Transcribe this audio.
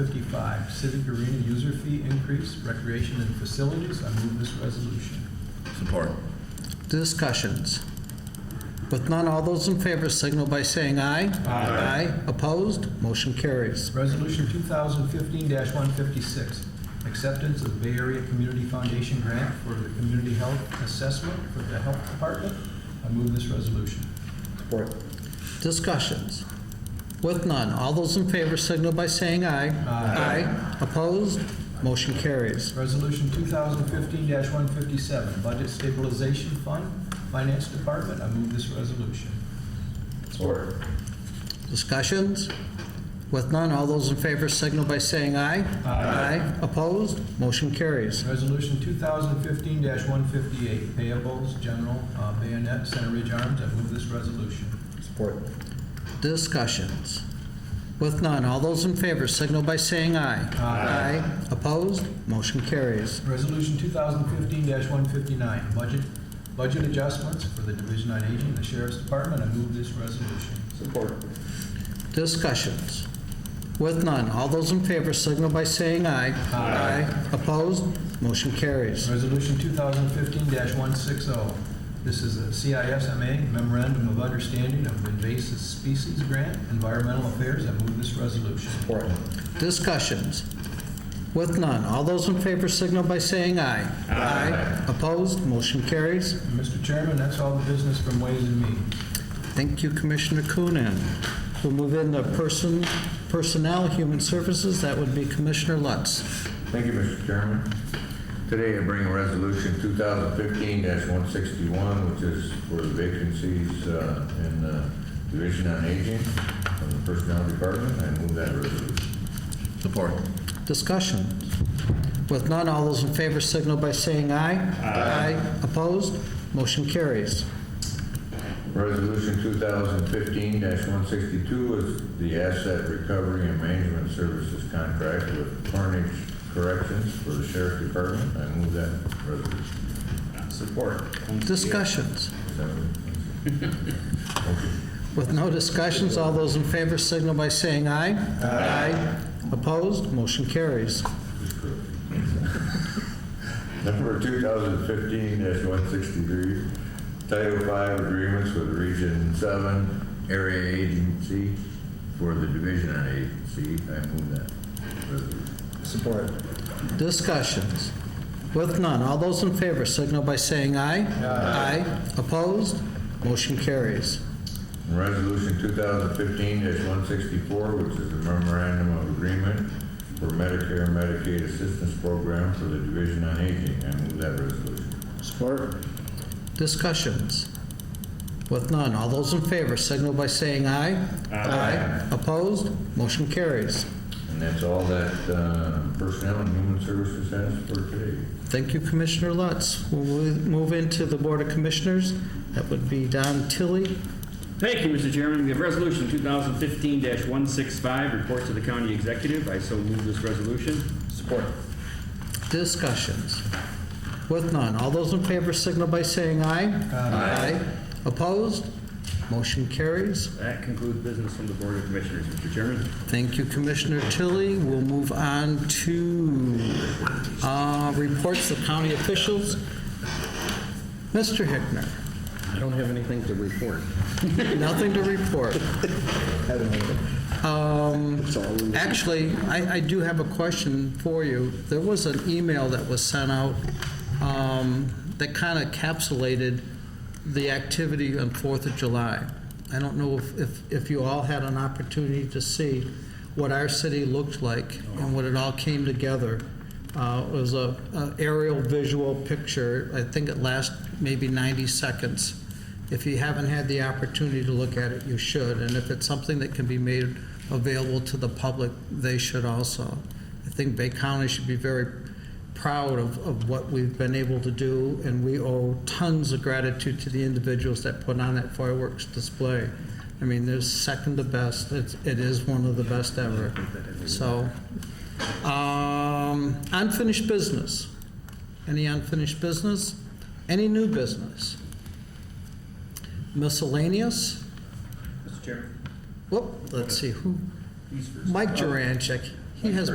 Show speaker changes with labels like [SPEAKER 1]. [SPEAKER 1] Fifty-five, civic arena user fee increase, recreation and facilities. I move this resolution.
[SPEAKER 2] Support.
[SPEAKER 3] Discussions. With none, all those in favor signal by saying aye. Aye. Opposed? Motion carries.
[SPEAKER 1] Resolution 2015-156, acceptance of Bay Area Community Foundation grant for the community health assessment for the health department. I move this resolution.
[SPEAKER 4] Support.
[SPEAKER 3] Discussions. With none, all those in favor signal by saying aye.
[SPEAKER 1] Aye.
[SPEAKER 3] Opposed? Motion carries.
[SPEAKER 1] Resolution 2015-157, budget stabilization fund, finance department. I move this resolution.
[SPEAKER 4] Support.
[SPEAKER 3] Discussions. With none, all those in favor signal by saying aye. Aye. Opposed? Motion carries.
[SPEAKER 1] Resolution 2015-158, payables, general, uh, bayonet, Center Ridge Arms. I move this resolution.
[SPEAKER 4] Support.
[SPEAKER 3] Discussions. With none, all those in favor signal by saying aye.
[SPEAKER 1] Aye.
[SPEAKER 3] Opposed? Motion carries.
[SPEAKER 1] Resolution 2015-159, budget, budget adjustments for the Division on Aging and the Sheriff's Department. I move this resolution.
[SPEAKER 4] Support.
[SPEAKER 3] Discussions. With none, all those in favor signal by saying aye. Aye. Opposed? Motion carries.
[SPEAKER 1] Resolution 2015-160, this is a CISMA Memorandum of Understanding of Invasive Species Grant, Environmental Affairs. I move this resolution.
[SPEAKER 4] Support.
[SPEAKER 3] Discussions. With none, all those in favor signal by saying aye. Aye. Opposed? Motion carries.
[SPEAKER 1] Mr. Chairman, that's all the business from Ways and Means.
[SPEAKER 3] Thank you, Commissioner Coonan. We'll move into person, personnel, human services. That would be Commissioner Lutz.
[SPEAKER 5] Thank you, Mr. Chairman. Today I bring Resolution 2015-161, which is for the vacancies uh, in the Division on Aging of the Personnel Department. I move that resolution.
[SPEAKER 2] Support.
[SPEAKER 3] Discussion. With none, all those in favor signal by saying aye. Aye. Opposed? Motion carries.
[SPEAKER 5] Resolution 2015-162 is the Asset Recovery and Management Services Contract with Carnage Corrections for the Sheriff Department. I move that resolution.
[SPEAKER 4] Support.
[SPEAKER 3] Discussions.
[SPEAKER 5] Is that what-
[SPEAKER 3] With no discussions, all those in favor signal by saying aye. Aye. Opposed? Motion carries.
[SPEAKER 5] Number 2015-163, Title V Agreements with Region 7 Area Agency for the Division on Agency. I move that resolution.
[SPEAKER 4] Support.
[SPEAKER 3] Discussions. With none, all those in favor signal by saying aye. Aye. Opposed? Motion carries.
[SPEAKER 5] And Resolution 2015-164, which is a memorandum of agreement for Medicare and Medicaid Assistance Program for the Division on Aging. I move that resolution.
[SPEAKER 4] Support.
[SPEAKER 3] Discussions. With none, all those in favor signal by saying aye. Aye. Opposed? Motion carries.
[SPEAKER 5] And that's all that uh, Personnel and Human Services has for today.
[SPEAKER 3] Thank you, Commissioner Lutz. We'll move into the Board of Commissioners. That would be Don Tilly.
[SPEAKER 6] Thank you, Mr. Chairman. We have Resolution 2015-165, report to the county executive. I so move this resolution.
[SPEAKER 4] Support.
[SPEAKER 3] Discussions. With none, all those in favor signal by saying aye. Aye. Opposed? Motion carries.
[SPEAKER 6] That concludes business from the Board of Commissioners, Mr. Chairman.
[SPEAKER 3] Thank you, Commissioner Tilly. We'll move on to uh, reports of county officials. Mr. Hickner,
[SPEAKER 7] I don't have anything to report.
[SPEAKER 3] nothing to report.
[SPEAKER 4] Haven't heard it. It's all in the-
[SPEAKER 3] Actually, I, I do have a question for you. There was an email that was sent out um, that kind of encapsulated the activity on Fourth of July. I don't know if, if, if you all had an opportunity to see what our city looked like and what it all came together. Uh, It was a a aerial visual picture. I think it lasts maybe 90 seconds. If you haven't had the opportunity to look at it, you should. And if it's something that can be made available to the public, they should also. I think Bay County should be very proud of, of what we've been able to do, and we owe tons of gratitude to the individuals that put on that fireworks display. I mean, there's second to best. It's, it is one of the best ever. So, um, unfinished business. Any unfinished business? Any new business? Miscellaneous?
[SPEAKER 6] Mr. Chairman.
[SPEAKER 3] Whoop, let's see, who? Mike Juranchik. He has